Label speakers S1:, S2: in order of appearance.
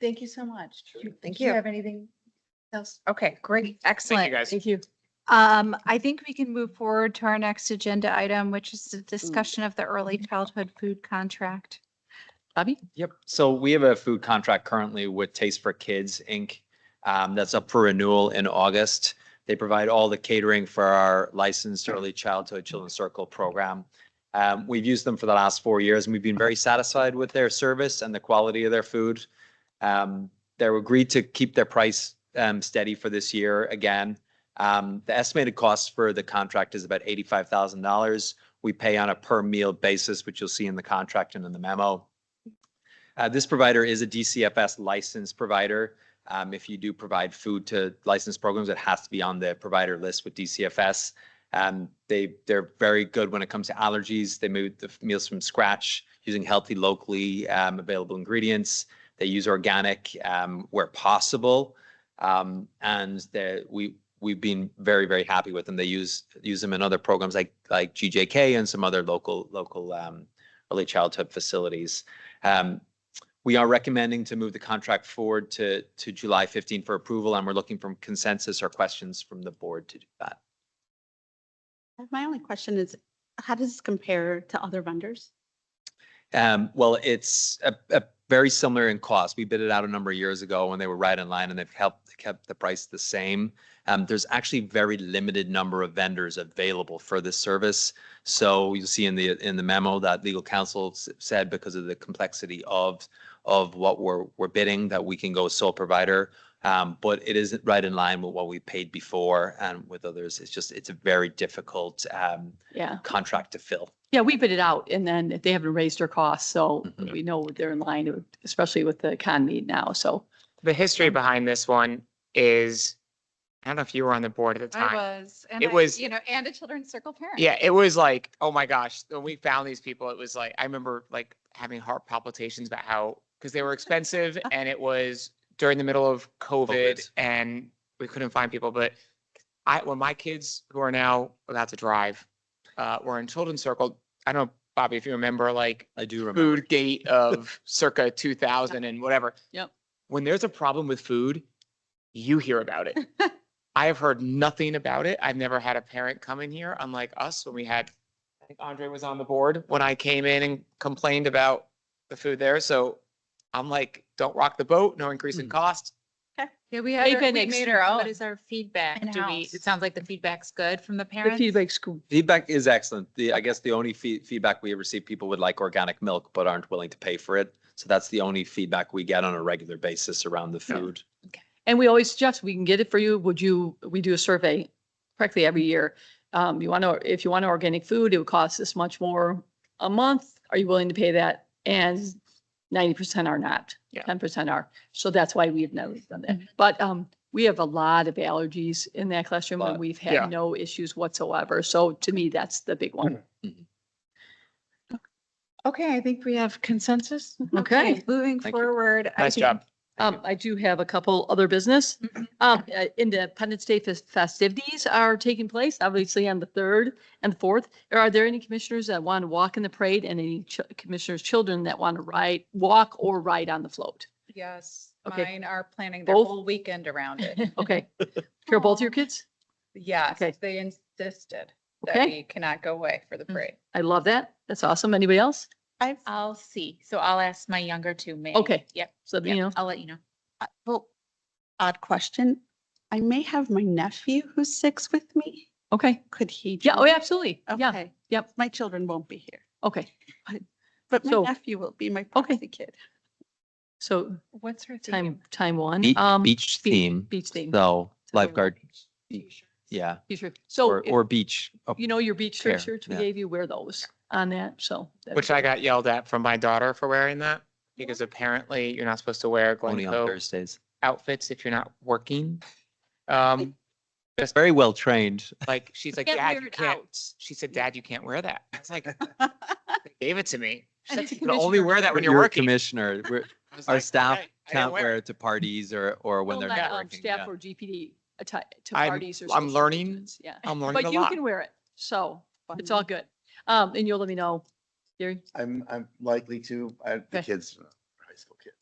S1: Thank you so much.
S2: Thank
S1: Do you
S2: you.
S1: have anything else?
S2: Okay, great, excellent.
S3: guys.
S2: Thank you.
S4: Um, I think we can move forward to our next agenda item, which is the discussion of the early childhood food contract. Bobby?
S3: Yep. So we have a food contract currently with Taste for Kids, Inc. um, that's up for renewal in August. They provide all the catering for our licensed early childhood children's circle program. Um, we've used them for the last four years and we've been very satisfied with their service and the quality of their food. Um, they're agreed to keep their price um, steady for this year again. Um, the estimated cost for the contract is about eighty-five thousand dollars. We pay on a per meal basis, which you'll see in the contract and in the memo. Uh, this provider is a DCFS licensed provider. Um, if you do provide food to licensed programs, it has to be on the provider list with DCFS. Um, they they're very good when it comes to allergies. They move the f- meals from scratch using healthy, locally um, available ingredients. They use organic um, where possible, um, and they we we've been very very happy with them. They use use them in other programs like like GJK and some other local local um, early childhood facilities. Um, we are recommending to move the contract forward to, to July 15 for approval, and we're looking for consensus or questions from the board to do that.
S5: Uh, My only question is, how does this compare to other vendors?
S3: Um, Well, it's a, a very similar in cost. We bid it out a number of years ago when they were right in line, and they've helped, kept the price the same. Um, There's actually very limited number of vendors available for this service. So you'll see in the, in the memo that legal counsel s- said because of the complexity of, of what we're, we're bidding, that we can go sole provider. Um, But it is right in line with what we paid before and with others. It's just, it's a very difficult um,
S6: Yeah,
S3: contract to fill.
S6: yeah, we bid it out and then they haven't raised their costs, so
S3: Mhm.
S6: we know they're in line, especially with the economy now, so.
S7: The history behind this one is, I don't know if you were on the board at the time.
S4: was. and
S7: It
S4: I,
S7: was-
S4: You know, and a children's circle parent.
S7: Yeah, it was like, oh my gosh, when we found these people, it was like, I remember like having heart palpitations about how, because they were expensive and it was during the middle of COVID
S3: COVID.
S7: and we couldn't find people. But I, when my kids who are now about to drive, uh, were in children's circle, I don't know, Bobby, if you remember, like
S3: I do remember.
S7: food gate of circa 2000 and whatever.
S6: Yep.
S7: When there's a problem with food, you hear about it. I have heard nothing about it. I've never had a parent come in here, unlike us when we had, I think Andre was on the board when I came in and complained about the food there. So I'm like, don't rock the boat, no increase in
S3: Mhm.
S7: cost.
S8: Yeah, we had,
S6: They've
S8: our-
S6: been
S8: we made our
S6: extreme-
S8: What is our feedback? Do we,
S1: In-house.
S8: it sounds like the feedback's good from the
S6: The
S8: parents.
S6: feedback's good.
S3: Feedback is excellent. The, I guess the only fee- feedback we receive, people would like organic milk but aren't willing to pay for it. So that's the only feedback we get on a regular basis around the food.
S6: And we always suggest, we can get it for you. Would you, we do a survey practically every year. Um, you want to, if you want organic food, it would cost this much more a month. Are you willing to pay that? And ninety percent are not,
S7: Yeah.
S6: ten percent are. So that's why we've never done that. But, um, we have a lot of allergies in that classroom and
S3: Lot.
S6: we've
S7: Yeah.
S6: had no issues whatsoever. So to me, that's the big one.
S1: Okay, I think we have consensus.
S6: Okay.
S4: Moving
S3: Thank you.
S4: forward. I
S7: Nice
S4: think-
S7: job. Thank
S6: Um, I do have a couple other business.
S8: Mm-hmm.
S4: Mhm.
S6: Um, uh, Independence Day fes- festivities are taking place, obviously on the third and the fourth. Are there any commissioners that want to walk in the parade and any ch- commissioners' children that want to ride, walk or ride on the float?
S8: Yes,
S6: Okay.
S8: mine are planning their
S6: Both?
S8: whole weekend around it.
S6: Okay. Here, both your kids?
S8: Yes,
S6: Okay.
S8: they insisted that
S6: Okay,
S8: we cannot go away for the
S5: Mm.
S8: parade.
S6: I love that. That's awesome. Anybody else?
S1: I've,
S8: I'll see. So I'll ask my younger two, maybe.
S6: Okay.
S8: Yep.
S6: So, you
S8: yep,
S6: know,
S8: I'll let you know.
S5: Uh, Well, odd question. I may have my nephew who's six with me.
S6: okay.
S5: Could he?
S6: Yeah, oh,
S5: join?
S6: yeah, absolutely. Yeah,
S5: Okay.
S6: yep.
S5: My children won't be here,
S6: okay.
S5: but my
S6: So-
S5: nephew will be my
S6: Okay.
S5: proxy kid.
S6: So
S8: What's her
S6: time, time one.
S3: Be-
S6: Um,
S3: Beach
S6: be-
S3: theme,
S6: Beach theme.
S3: so lifeguard, yeah,
S6: Beach- So.
S3: or,
S6: it-
S3: or beach. Oh,
S6: you know, your beach shirt
S3: Fair,
S6: shirts, we
S3: yeah.
S6: gave you, wear those on that, so. that'd be
S7: Which I
S6: great.
S7: got yelled at from my daughter for wearing that because apparently you're not supposed to wear
S3: Only on
S7: Glencoe
S3: Thursdays.
S7: outfits if you're not working. Um,
S3: Very well trained.
S7: like she's like,
S8: Get
S7: Dad, you
S8: weird
S7: can't.
S8: out.
S7: She said, Dad, you can't wear that. I was like, they gave it to me. She's
S8: And
S7: like,
S8: it's a
S7: you can only
S8: commissioner.
S7: wear that when you're
S3: You're a
S7: working.
S3: Commissioner, We're-
S7: I was
S3: our
S7: like,
S3: staff
S7: "Okay, I didn't
S3: can't wear
S7: it."
S3: it to parties or, or when
S6: We'll
S3: they're
S6: let,
S3: not
S6: um,
S3: working. yeah.
S6: Staff or GPD attire to
S7: I'm-
S6: parties or.
S7: I'm
S6: social
S7: learning.
S6: functions, Yeah,
S7: I'm learning a
S6: but you
S7: lot.
S6: can wear it, so it's all good. Um, and you'll let me know, Gary,
S9: I'm, I'm likely to, I, the
S6: Okay.
S9: kids, are high school kids.